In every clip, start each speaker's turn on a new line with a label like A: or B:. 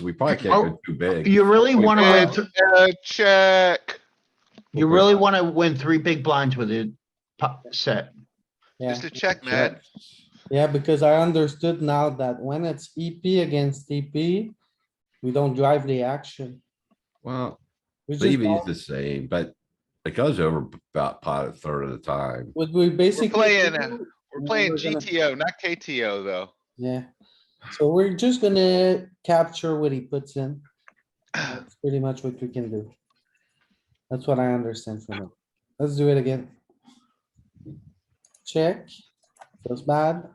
A: we probably can't go too big.
B: You really want
C: It's
B: to,
C: a check.
B: you really want to win three big blinds with it po- set.
D: Yeah,
C: It's a check, man.
D: yeah, because I understood now that when it's EP against TP, we don't drive the action.
A: Well,
D: We just,
A: maybe it's
D: don't-
A: the same, but it goes over about pot a third of the time.
D: what we basically.
C: playing,
D: do-
C: uh, We're
D: Yeah,
C: playing
D: we're gonna-
C: GTO, not KTO, though.
D: Yeah, so we're just gonna capture what he puts in. That's pretty much what we can do. That's what I understand from it. Let's do it again. Check, feels bad.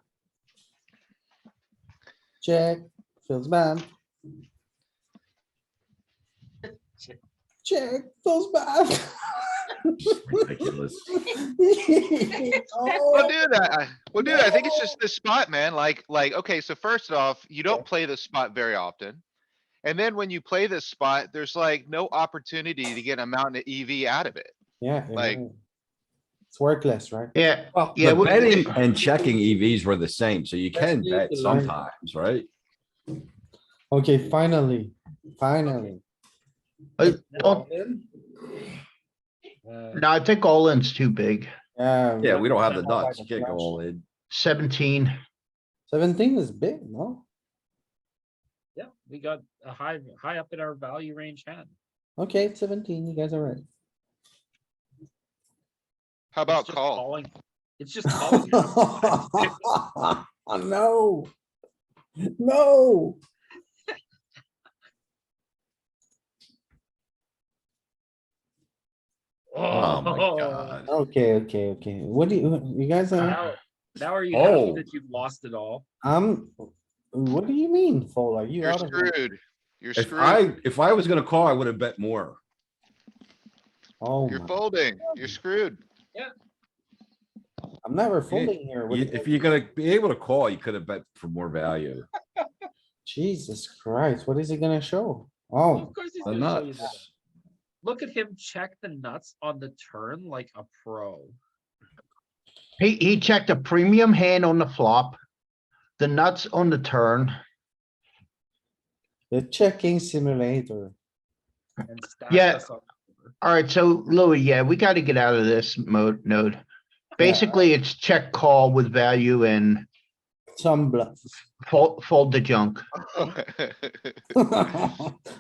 D: Check, feels bad. Check, feels bad.
A: Ridiculous.
C: We'll do that. I- We'll do that. I think it's just this spot, man. Like, like, okay, so first off, you don't play this spot very often. And then when you play this spot, there's like no opportunity to get a mountain of EV out of it.
D: Yeah. you're
C: Like-
D: right. It's worthless, right?
B: Yeah,
A: Well,
B: Yeah,
A: the
B: we-
A: betting and checking EVs were the same, so you
D: Let's
A: can
D: leave
A: bet
D: the line.
A: sometimes, right?
D: Okay, finally, finally.
B: I- all-
E: Uh,
B: no, I think all in's too big.
D: Yeah.
A: Yeah, we don't have the
D: Check out
A: nuts.
D: by
A: You
D: the
A: can't go
D: flush.
A: all in.
B: Seventeen,
D: Seventeen is big, no?
E: yeah, we got a high, high up in our value range hand.
D: Okay, it's seventeen, you guys are right.
C: How
E: It's
C: about
E: just
C: call?
E: calling. It's just calling.
A: Oh
E: here.
D: No. No.
A: Oh my
E: Oh,
A: god.
D: Okay, okay, okay. What do you, you guys are,
E: Now, now are you happy
A: Oh.
E: that you've lost it all?
D: I'm, what do you mean, fold? Are you
C: You're
D: out of? it?
C: screwed. You're
A: If
C: screwed.
A: I, if I was gonna call, I would have bet more.
D: Oh,
C: You're
D: my-
C: folding. You're screwed.
D: I'm never folding here.
A: You-
D: What the-
A: If you're gonna be able to call, you could have bet for more value.
D: Jesus Christ, what is he gonna show? Oh,
E: Of course he's
A: The
E: gonna show you that.
A: nuts.
E: Look at him check the nuts on the turn like a pro.
B: he, he checked a premium hand on the flop. The nuts on the turn.
D: the checking simulator.
E: and stacked
B: Yeah.
E: us up.
B: Alright, so Louis, yeah, we gotta get out of this mode, node. Basically, it's check call with value and
D: Some bluffs.
B: fold, fold the junk.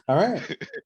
D: Alright,